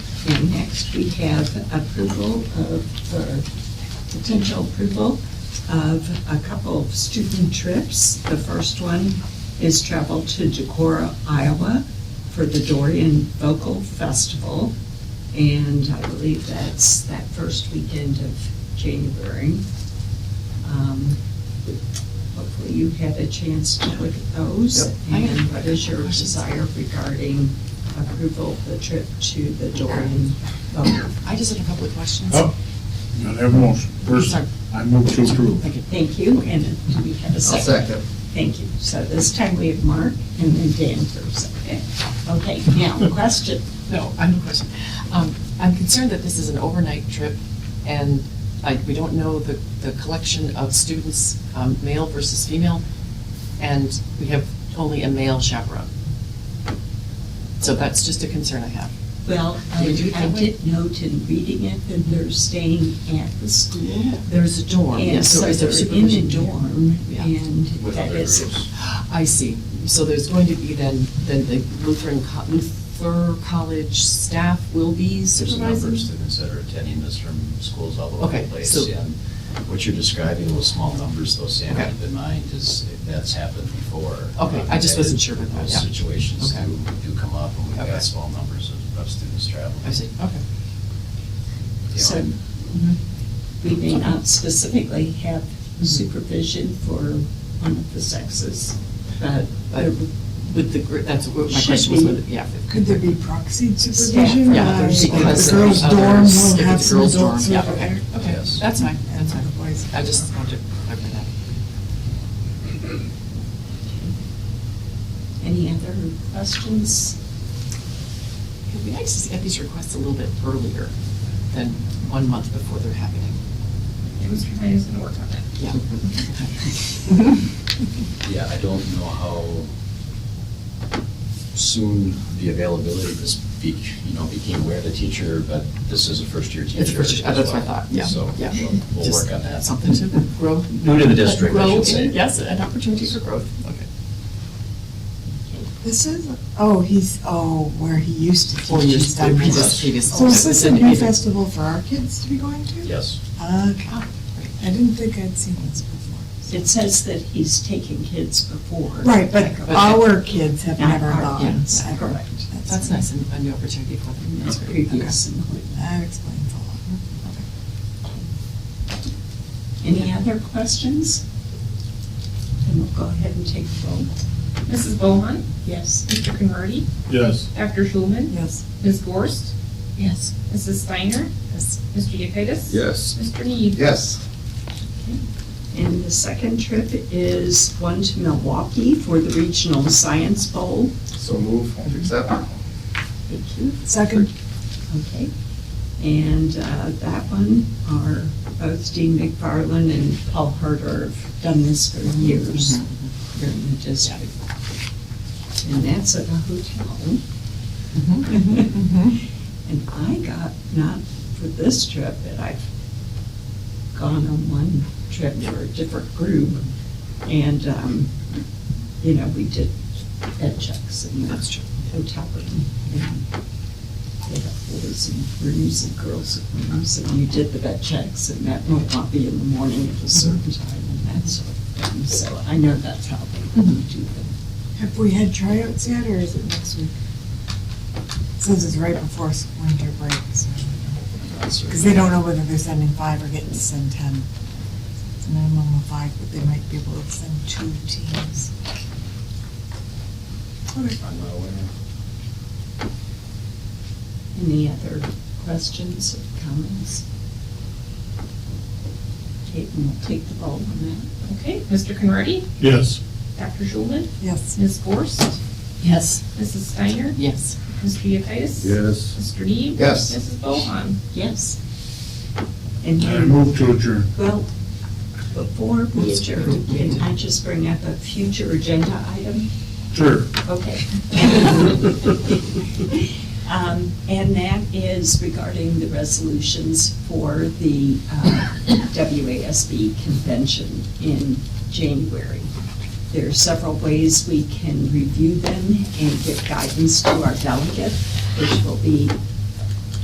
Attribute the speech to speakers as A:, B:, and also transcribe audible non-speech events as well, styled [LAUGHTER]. A: And next, we have approval of, or potential approval of a couple of student trips. The first one is travel to Decorah, Iowa for the Dorian Vocal Festival. And I believe that's that first weekend of January. Um, Hopefully you had a chance to look at those.
B: Yep.
C: I
A: And
C: have
A: what is your desire regarding approval of the trip to the Dorian Vocal?
C: I just have a couple of questions.
B: Oh, not have a motion. First,
C: Sorry.
B: I move to approve.
C: Thank you.
A: Thank you, and do we have a 2nd Thank you. So this time we have Mark and then Dan first, okay? Okay, now, question.
C: No, I have a question. Um, I'm concerned that this is an overnight trip, and I, we don't know the, the collection of students, um, male versus female, and we have only a male chaperone. So that's just a concern I have.
A: Well, I
C: Did you
A: I
C: think-
A: did note in reading it that they're staying at the school.
C: There's a dorm,
A: And
C: yes,
A: so
C: so is there
A: they're in the
C: supervision?
A: dorm,
C: Yeah.
A: and
B: With
A: that
B: other
A: is,
B: groups.
C: I see. So there's going to be then, then the Lutheran, co- Luther College staff will be
D: There's a number
C: supervising?
D: of students that are attending this from schools all over
C: Okay,
D: the place.
C: so-
D: And what you're describing, those small numbers, though, Sam,
C: Okay.
D: keep in mind, is that's happened before.
C: Okay, I just wasn't sure about that, yeah.
D: Those situations
C: Okay.
D: do, do come up, and we've
C: Okay.
D: got small numbers of- of students traveling.
C: I see, okay.
D: You know,
A: so mm-hmm.
D: and
A: we may not specifically have supervision for one of the sexes, but
C: But with the, gr- that's what my
A: Should
C: question was,
A: be.
C: with- yeah. if-
E: Could there be proxy supervision?
C: Yeah,
E: Uh,
C: there's-
E: if
C: because
E: The girls'
C: there's
E: dorm
C: others-
E: will
C: if
E: have
C: it's
E: some
C: girls' dorm,
E: adults
C: Yeah,
E: over
C: okay,
E: there.
C: okay,
D: Yes.
C: that's fine, that's fine.
E: And the boys.
C: I just wanted to clarify that.
A: any other questions?
C: It'd be nice to get these requests a little bit earlier than one month before they're happening. It was, I was gonna work on it. Yeah.
D: Yeah, I don't know how soon the availability of this be, you know, became aware of the teacher, but this is a first-year teacher.
C: It's a first-
D: as
C: that's what I
D: well.
C: thought, yeah,
D: So
C: yeah.
D: we'll, we'll
C: Just
D: work on that.
C: Something to grow.
D: New to the district, I
C: grow
D: should say.
C: in, Yes, an opportunity for growth, okay.
E: This is, oh, he's, oh, where he used to teach.
C: Or
E: he's
C: just
E: done
C: the
E: this.
C: previous- previous-
E: So is this a
C: Send
E: new
C: it.
E: festival for our kids to be going to?
D: Yes.
E: Okay,
C: Oh, great.
E: I didn't think I'd seen this before. so-
A: It says that he's taken kids before.
E: Right, but
C: Okay.
E: our kids have
A: Not
E: never
A: our
E: gone.
A: kids,
E: ever.
A: correct.
C: That's nice, and a new opportunity for them, that's great. Okay.
A: Previous employment.
E: That explains a lot.
A: Any other questions? Then we'll go ahead and take the roll.
F: Mrs. Bohan,
A: Yes.
F: Mr. Conrady,
B: Yes.
F: Dr. Schulman,
E: Yes.
F: Ms. Gorst,
C: Yes.
F: Mrs. Steiner, Mr. Yekitis.
B: Yes.
F: Mr. Need.
B: Yes.
A: And the second trip is one to Milwaukee for the Regional Science Bowl.
B: So move, accept.
A: Thank you.
E: Second,
A: Okay. And uh, that one are both Dean McFarland and Paul Herter have done this for years
C: Mm-hmm.
A: here in the district. And that's at a hotel.
C: Mm-hmm.
A: [LAUGHS] And I got, not for this trip, but I've gone on one trip for a different group. And, um, you know, we did bed checks in the
C: That's true.
A: hotel room. and They have boys in rooms and girls in rooms, and you did the bed checks and met in Milwaukee in the morning at a certain time and that sort of thing. So I know that's how they do them.
E: have we had tryouts yet, or is it next week? Since it's right before winter break, so. Because they don't know whether they're sending five or getting to send ten. It's a minimum of five, but they might be able to send two teams. Okay.
D: I'm not aware.
A: Any other questions or comments? Kate, and we'll take the roll on that.
F: Okay, Mr. Conrady,
B: Yes.
F: Dr. Schulman,
E: Yes.
F: Ms. Gorst,
C: Yes.
F: Mrs. Steiner,
C: Yes.
F: Mr. Yekitis.
B: Yes.
F: Mr. Need.
B: Yes.
F: Mrs. Bohan.
A: Yes. And
B: I
A: then,
B: move to adjourn.
A: well, before we adjourn, can I just bring up a future agenda item?
B: Sure.
A: Okay. Um, And that is regarding the resolutions for the uh, WASB convention in January. There are several ways we can review them and give guidance to our delegate, which will be